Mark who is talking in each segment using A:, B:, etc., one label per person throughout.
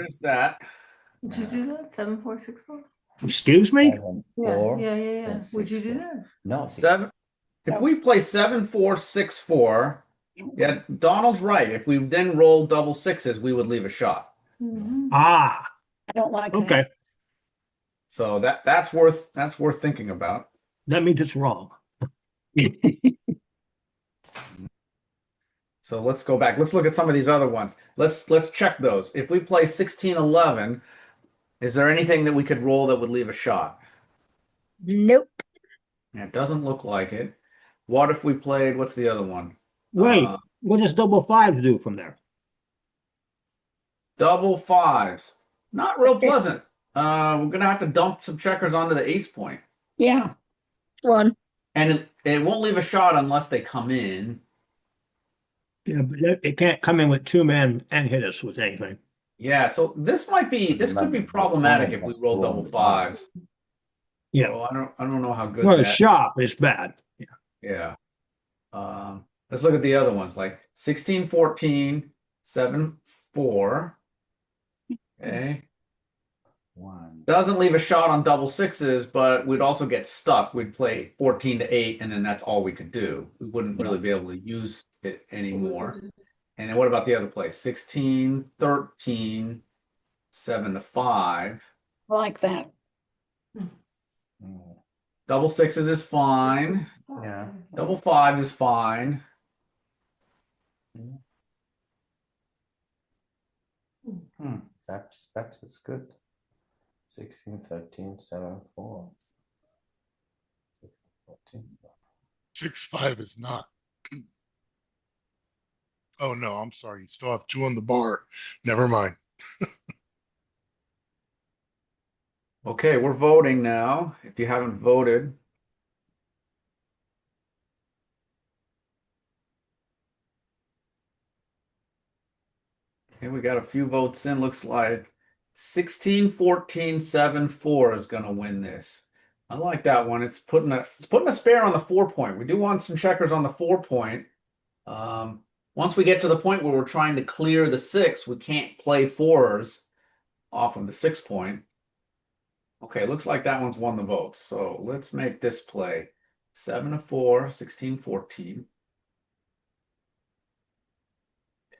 A: is that.
B: Would you do that? Seven, four, six, four?
C: Excuse me?
D: Seven,
B: Yeah,
D: four.
B: yeah, yeah, yeah.
D: and
B: Would
D: six,
B: you do
D: four.
B: that?
D: No.
A: Seven, if we play seven, four, six, four, yeah, Donald's right. If we then roll double sixes, we would leave a shot.
B: Mhm.
C: Ah,
E: I don't like that.
C: okay.
A: So that, that's worth, that's worth thinking about.
C: That means it's wrong.
A: So let's go back. Let's look at some of these other ones. Let's, let's check those. If we play sixteen, eleven, is there anything that we could roll that would leave a shot?
E: Nope.
A: It doesn't look like it. What if we played, what's the other one?
C: Wait,
A: Uh,
C: what does double five do from there?
A: Double fives. Not real pleasant. Uh, we're gonna have to dump some checkers onto the ace point.
E: Yeah.
F: One.
A: And it, it won't leave a shot unless they come in.
C: Yeah, but it- it can't come in with two men and hit us with anything.
A: Yeah, so this might be this could be problematic if we roll double fives.
C: Yeah.
A: So I don't I don't know how good
C: Well,
A: that-
C: it's sharp, it's bad. Yeah.
A: yeah. Um, let's look at the other ones like 16, 14, 7, 4. Okay.
D: One.
A: Doesn't leave a shot on double sixes, but we'd also get stuck. We'd play 14 to 8, and then that's all we could do. We wouldn't really be able to use it anymore. And then what about the other play? 16, 13, 7 to 5.
E: I like that.
D: Mm,
A: Double sixes is fine.
B: Stop
D: Yeah.
B: it.
A: Double fives is fine.
D: Hmm, that's, that's is good. Sixteen, thirteen, seven, four. 14.
G: Six five is not. Oh no, I'm sorry. You still have two on the bar. Never mind.
A: Okay, we're voting now. If you haven't voted, okay, we got a few votes in. Looks like 16 14 7 4 is going to win this. I like that one. It's putting a it's putting a spare on the four point. We do want some checkers on the four point. Um, once we get to the point where we're trying to clear the six, we can't play fours off of the six point. Okay, looks like that one's won the vote. So let's make this play. Seven to four, 16, 14.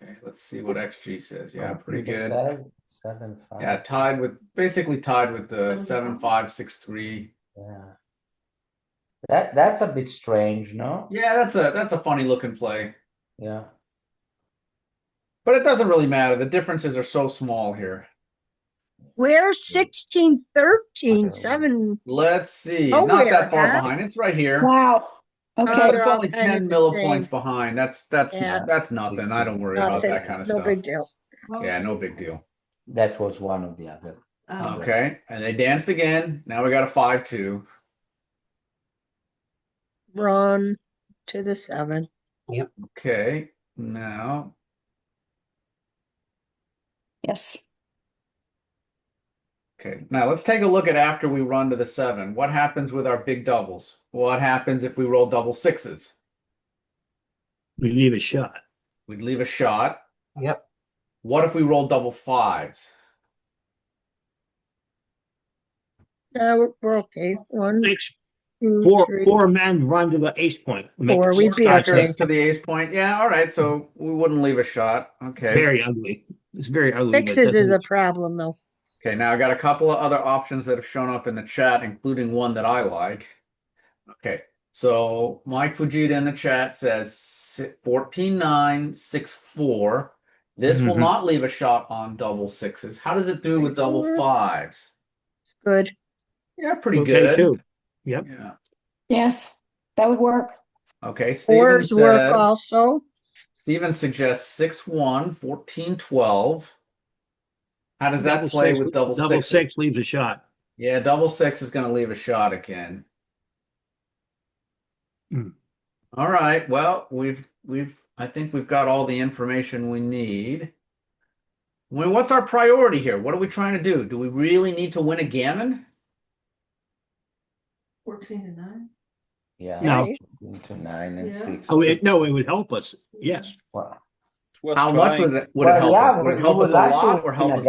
A: Okay, let's see what XG says. Yeah, pretty
D: Computer
A: good.
D: says Seven, five.
A: Yeah, tied with basically tied with the seven five six three.
D: Yeah. That, that's a bit strange, no?
A: Yeah, that's a that's a funny looking play,
D: Yeah.
A: but it doesn't really matter. The differences are so small here.
F: Where's sixteen,
D: Okay.
F: thirteen, seven?
A: Let's see,
F: Oh,
A: not that
F: where,
A: far
F: huh?
A: behind. It's right here.
E: Wow.
A: Uh,
F: Oh,
E: Okay.
F: they're
A: it's
F: all
A: only
F: kind of
A: ten
F: the
A: millipoints
F: same.
A: behind. That's that's
F: Yeah.
A: that's nothing. I don't worry about
F: Nothing.
A: that kind of
F: No
A: stuff.
F: big deal.
A: Yeah, no big deal.
D: That was one of the other.
B: Oh.
D: Okay.
A: Okay, and they danced again. Now we got a five two.
F: Run to the seven.
A: Okay, now
E: Yes.
A: Okay, now let's take a look at after we run to the seven. What happens with our big doubles? What happens if we roll double sixes?
C: We leave a shot.
A: We'd leave a shot.
C: Yep.
A: What if we roll double fives?
F: No, we're- we're okay. One,
C: Six,
F: two,
C: four,
F: three.
C: four men run to the ace point. We make
F: Four,
C: it
F: we
C: six
F: beat
C: shots.
F: Okay.
A: Checkers to the ace point. Yeah, all right. So we wouldn't leave a shot. Okay.
C: Very ugly. It's very ugly. but
F: Sixes is a
C: doesn't-
F: problem though.
A: Okay, now I got a couple of other options that have shown up in the chat, including one that I like. Okay, so Mike Fujita in the chat says 14964. This will
C: Mhm.
A: not leave a shot on double sixes. How does it do with double fives?
F: Good.
A: Yeah, pretty
C: okay,
A: good.
C: too. Yep.
A: Yeah.
E: Yes. That would work.
A: Okay, Steven
F: Fours work
A: says,
F: also.
A: Steven suggests 6 1, 14 12. How does that
C: Double
A: play
C: six-
A: with double,
C: Double
A: sixes?
C: six leaves a shot.
A: Yeah, double six is going to leave a shot again.
C: Hmm.
A: All right. Well, we've we've I think we've got all the information we need. Well, what's our priority here? What are we trying to do? Do we really need to win a gammon?
B: Fourteen to nine?
D: Yeah.
C: No.
F: right?
D: Into nine and
B: Yeah.
D: six.
C: Oh, it, no, it would help us. Yes.
D: Wow.
A: How much was it? Would it
D: Well,
A: help
D: yeah,
A: us? Would it
D: we-
A: help
D: we
A: us
D: would
A: a
D: like to
A: lot or
D: win
A: help
D: a
A: us a